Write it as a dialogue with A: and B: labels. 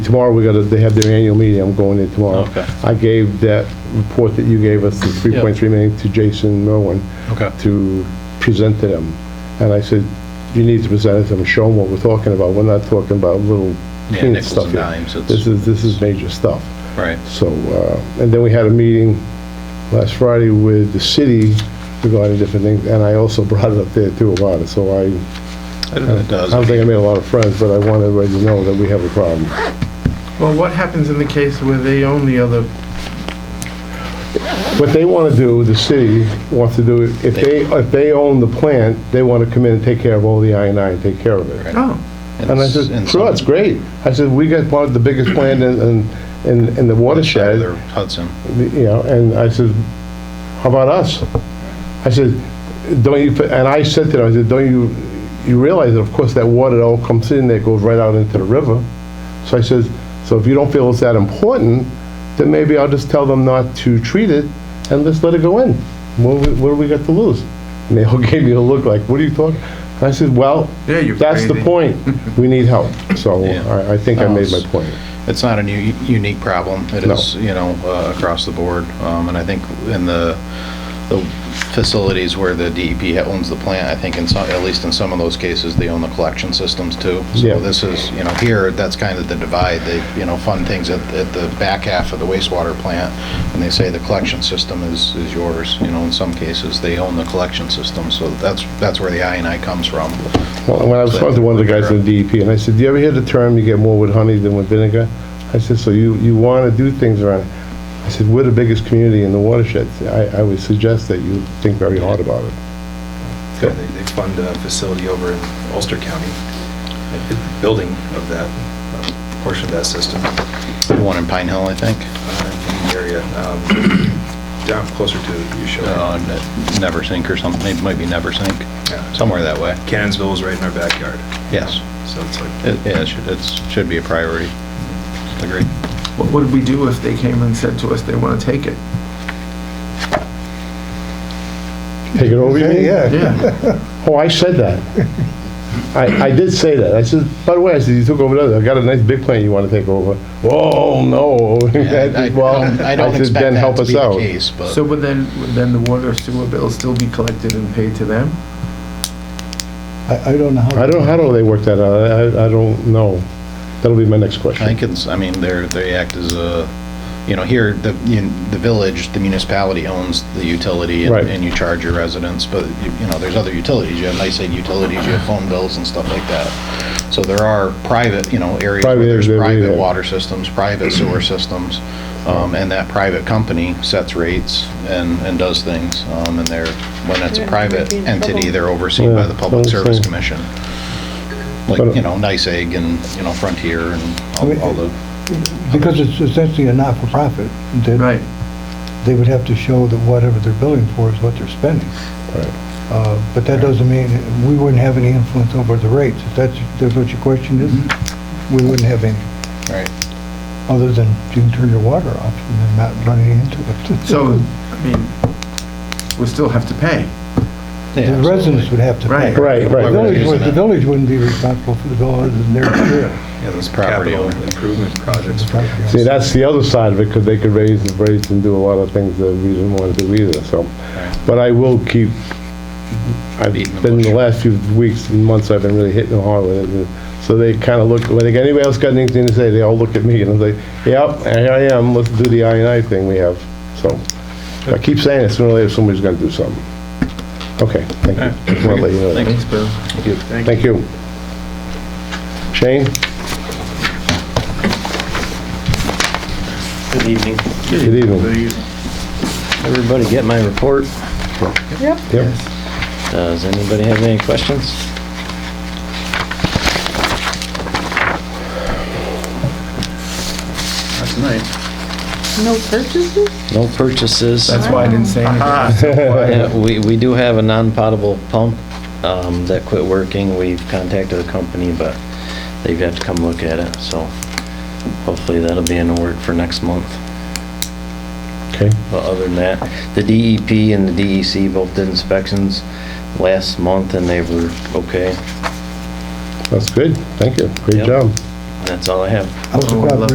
A: tomorrow we gotta, they have their annual meeting, I'm going in tomorrow.
B: Okay.
A: I gave that report that you gave us, the 3.3 million, to Jason Merwin
B: Okay.
A: to present to them. And I said, you need to present it to them, show them what we're talking about. We're not talking about little
B: Yeah,
A: peanut
B: nickels
A: stuff
B: and
A: here.
B: dimes, it's-
A: This is, this is major stuff.
B: Right.
A: So, uh, and then we had a meeting last Friday with the city regarding different things, and I also brought it up there too about it, so I,
B: I don't know if it
A: I don't
B: does.
A: think I made a lot of friends, but I want everybody to know that we have a problem.
C: Well, what happens in the case where they own the other,
A: What they want to do, the city wants to do, if they, if they own the plant, they want to come in and take care of all the I and I and take care of it.
C: oh,
A: And I said, sure, it's great. I said, we got one of the biggest plant in, in- in, in the watershed.
B: Side of Hudson.
A: you know, and I said, how about us? I said, don't you, and I said to them, I said, don't you, you realize that of course that water that all comes in there goes right out into the river? So I says, so if you don't feel it's that important, then maybe I'll just tell them not to treat it and just let it go in. What, do we- what do we got to lose? And they all gave me a look like, what are you talking? And I said, well,
C: Yeah, you're
A: that's the
C: crazy."
A: point. We need help. So
B: Yeah.
A: I, I think I
B: Oh,
A: made my
B: it's-
A: point.
B: It's not a new, unique problem. It
A: No.
B: is, you know, uh, across the board. Um, And I think in the, the facilities where the DEP ha- owns the plant, I think in some, at least in some of those cases, they own the collection systems too.
A: Yeah.
B: So this is, you know, here, that's kind of the divide. They, you know, fund things at, at the back half of the wastewater plant, and they say the collection system is, is yours. You know, in some cases, they own the collection system, so that's, that's where the I and I comes from.
A: Well, when I was talking to one of the guys in the DEP, and I said, do you ever hear the term, you get more with honey than with vinegar? I said, so you, you want to do things around, I said, we're the biggest community in the watershed. I, I would suggest that you think very hard about it.
D: Yeah, They they fund a facility over in Ulster County, a building of that, um, portion of that system uh,
B: The one in Pine Hill, I think.
D: in the area, um, down closer to
B: uh,
D: you show.
B: Ne- Neversink or something, it might be Neversink,
D: Yeah.
B: somewhere that way.
D: Cannonsville is right in our backyard,
B: Yes,
D: so it's like,
B: it, yeah, it should, it's, should be a priority. Agreed.
C: what would we do if they came and said to us they want to take it?
A: Take it over, you mean?
C: Yeah,
A: Oh, I said that. I, I did say that. I said, by the way, I said, you took over that, I got a nice big plant you want to take over. Whoa, no.
B: I
A: Well,
B: don't- I don't
A: said,
B: expect
A: "Then
B: that
A: help
B: to
A: us
B: be the
A: out."
B: case, but-
C: so would then, would then the water sewer bill still be collected and paid to them?
E: I, I don't know how.
A: I don't, how do they work that out? I, I- I don't know. That'll be my next
B: I
A: question.
B: think it's, I mean, they're, they act as a, you know, here, the, you- the village, the municipality owns the utility and
A: Right.
B: and you charge your residents, but, you you know, there's other utilities, you have nice-aid utilities, you have phone bills and stuff like that. So there are private, you know, areas where
A: Private areas,
B: there's
A: yeah, yeah.
B: private water systems, private sewer systems, um, and that private company sets rates and, and does things, um, and they're, when it's a
F: They're never
B: private
F: be in
B: entity,
F: trouble.
B: they're overseen by
A: Yeah,
B: the Public
A: that's
B: Service
A: right.
B: Commission. Like,
A: But-
B: you know, NICEAG and, you know, Frontier and all- all the
E: Because it's essentially a not-for-profit, then
C: Right,
E: they would have to show that whatever they're billing for is what they're spending. Uh, But that doesn't mean, we wouldn't have any influence over the rates. If that's, that's what your question is,
C: Mm-hmm.
E: we wouldn't have any,
B: Right.
E: other than you can turn your water off and then not run any into it.
C: so, I mean, we still have to pay.
E: The residents would have to pay.
C: Right.
A: Right,
E: The
A: right.
B: Whoever
E: village, would-
B: using
E: the
B: it.
E: village wouldn't be responsible for the bill other than their share.
D: yeah, those
B: Property
D: capital
B: owner.
D: improvement projects. for-
A: See, that's the other side of it, because they could raise and raise and do a lot of things that we didn't want to do either, so. But I will keep, I've
B: Beating the
A: been, the
B: bush.
A: last few weeks and months, I've been really hitting them hard with it. and So they kind of look, when they- anybody else got anything to say, they all look at me, and I'm like, yep, here I am, let's do the I and I thing we have, so. I keep saying it, sooner or later, somebody's gonna do something. Okay, thank you. Just wanna let you know that.
C: Thanks, Bill.
A: Thank you. Shane?
G: Good evening.
A: Good evening.
G: Everybody get my report?
A: Yep.
G: Does anybody have any questions?
C: That's nice.
F: No purchases?
G: No purchases.
C: That's why I didn't say anything.
G: Yeah, We, we do have a non-potable pump um, that quit working. We've contacted the company, but they've got to come look at it, so hopefully that'll be in the work for next month.
A: Okay.
G: But other than that, the DEP and the DEC both did inspections last month and they were okay.
A: That's good, thank you, great
G: Yep.
A: job.
H: That's all I have.
E: What's the
G: Oh, I love
E: proper